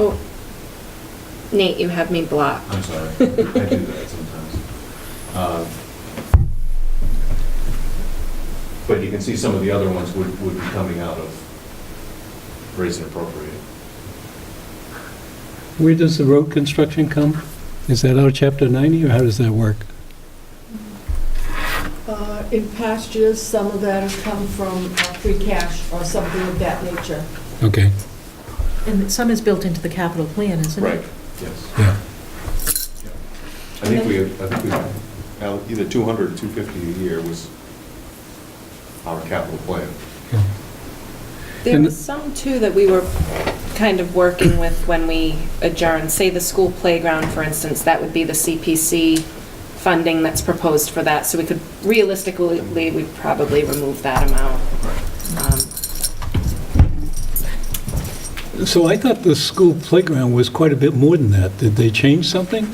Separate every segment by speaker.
Speaker 1: Oh, Nate, you have me blocked.
Speaker 2: I'm sorry, I do that sometimes. Um, But you can see some of the other ones would, would be coming out of raise and appropriate.
Speaker 3: Where does the road construction come? Is that out of chapter 90, or how does that work?
Speaker 4: Uh, In past years, some of that has come from uh, free cash or something of that nature.
Speaker 3: Okay,
Speaker 5: And some is built into the capital plan, isn't it?
Speaker 2: Yes.
Speaker 3: yeah.
Speaker 2: I think we, I think we, now, either 200 or 250 a year was our capital plan.
Speaker 3: yeah.
Speaker 1: There
Speaker 3: And-
Speaker 1: was some too that we were kind of working with when we adjourned, say the school playground, for instance, that would be the CPC funding that's proposed for that, so we could realistically, we'd probably remove that amount. Um,
Speaker 3: So I thought the school playground was quite a bit more than that. Did they change something?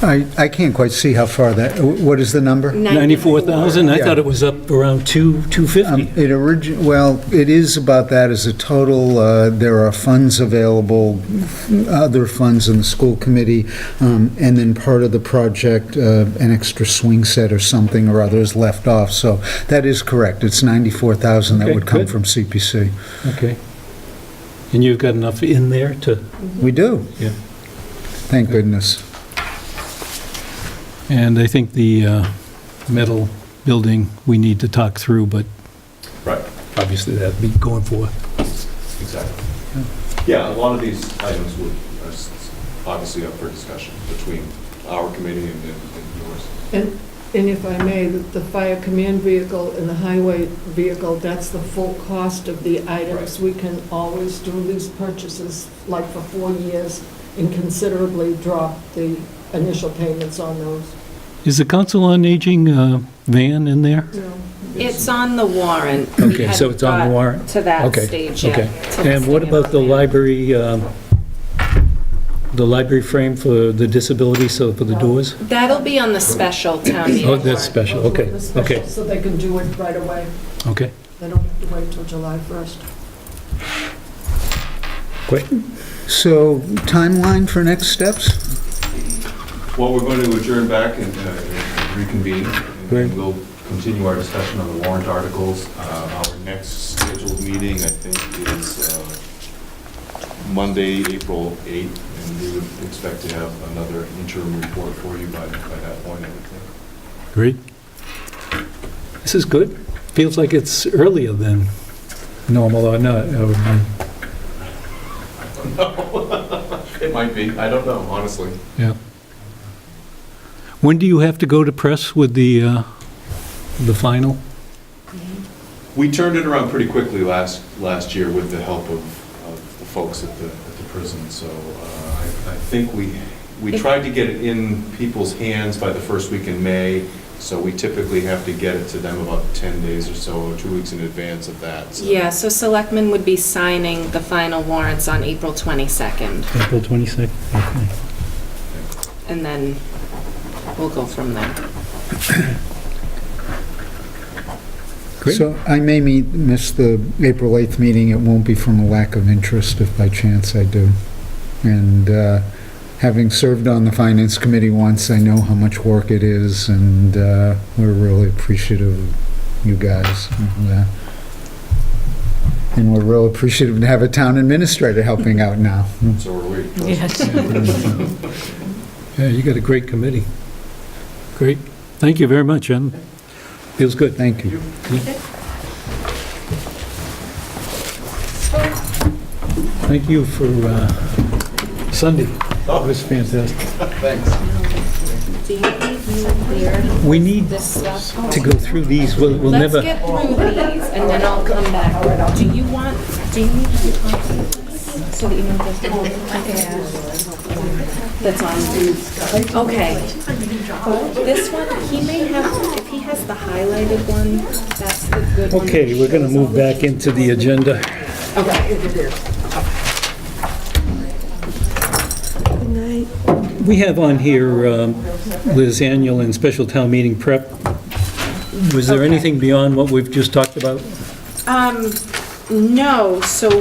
Speaker 6: I, I can't quite see how far that, what is the number?
Speaker 3: 94,000? I
Speaker 6: Yeah.
Speaker 3: thought it was up around 2,
Speaker 6: Um,
Speaker 3: 250.
Speaker 6: It origin, well, it is about that as a total. uh, There are funds available, other funds in the school committee, um, and then part of the project, uh, an extra swing set or something or other is left off. So that is correct. It's 94,000 that
Speaker 3: Okay,
Speaker 6: would come
Speaker 3: good.
Speaker 6: from CPC.
Speaker 3: Okay. And you've got enough in there to,
Speaker 6: We do.
Speaker 3: Yeah.
Speaker 6: Thank goodness.
Speaker 3: and I think the uh, metal building, we need to talk through, but
Speaker 2: Right.
Speaker 3: obviously that'd be going for.
Speaker 2: Exactly. Yeah, a lot of these items would, are s- s- obviously up for discussion between our committee and and- and yours.
Speaker 4: And, and if I may, the the fire command vehicle and the highway vehicle, that's the full cost of the items. We can always do these purchases, like for four years, and considerably drop the initial payments on those.
Speaker 3: Is the Council on Aging uh, van in there?
Speaker 1: It's on the warrant. We
Speaker 3: Okay, so
Speaker 1: hadn't
Speaker 3: it's on the
Speaker 1: got
Speaker 3: warrant?
Speaker 1: To that
Speaker 3: Okay,
Speaker 1: stage yet.
Speaker 3: Okay.
Speaker 1: to
Speaker 3: And what
Speaker 1: listing it
Speaker 3: about the
Speaker 1: on there.
Speaker 3: library, um, the library frame for the disability, so for the doors?
Speaker 1: That'll be on the special town meeting.
Speaker 3: Oh, that's
Speaker 1: warrant.
Speaker 3: special, okay,
Speaker 4: The special,
Speaker 3: okay,
Speaker 4: So they can do it right away.
Speaker 3: okay.
Speaker 4: They don't have to wait till July 1st.
Speaker 6: So timeline for next steps?
Speaker 2: Well, we're going to adjourn back and uh, reconvene,
Speaker 3: Great.
Speaker 2: and we'll continue our discussion on the warrant articles. Uh, Our next scheduled meeting, I think, is uh, Monday, April 8th, and we would expect to have another interim report for you by by that point, I would think.
Speaker 3: Great. This is good. Feels like it's earlier than normal or not. or, um,
Speaker 2: It might be, I don't know, honestly.
Speaker 3: Yeah. When do you have to go to press with the, uh, the final?
Speaker 2: We turned it around pretty quickly last, last year with the help of, of the folks at the, at the prison, so uh, I, I think we, we tried to get it in people's hands by the first week in May, so we typically have to get it to them about 10 days or so, or two weeks in advance of that. so-
Speaker 1: Yeah, so selectmen would be signing the final warrants on April 22nd.
Speaker 3: April 22nd? Okay.
Speaker 1: and then we'll go from there.
Speaker 3: Great.
Speaker 6: So I may meet, miss the April 8th meeting. It won't be from a lack of interest if by chance I do. And uh, having served on the Finance Committee once, I know how much work it is, and uh, we're really appreciative of you guys. and, uh, And we're real appreciative to have a town administrator helping out now.
Speaker 2: So are we.
Speaker 5: Yes.
Speaker 3: Yeah, you got a great committee. Great. Thank you very much, Jen. Feels good.
Speaker 6: Thank you.
Speaker 3: Thank you for uh, Sunday. That was fantastic.
Speaker 1: Do you need me to clear
Speaker 3: We need
Speaker 1: this stuff?
Speaker 3: to go through these. We'll we'll
Speaker 1: Let's
Speaker 3: never,
Speaker 1: get through these, and then I'll come back. Do you want, do you need to copy this so that you know this? That's on, okay. This one, he may have, if he has the highlighted one, that's the good one.
Speaker 3: okay, we're going to move back into the agenda. We have on here um, Liz annual and special town meeting prep. Was there anything beyond what we've just talked about?
Speaker 1: No, so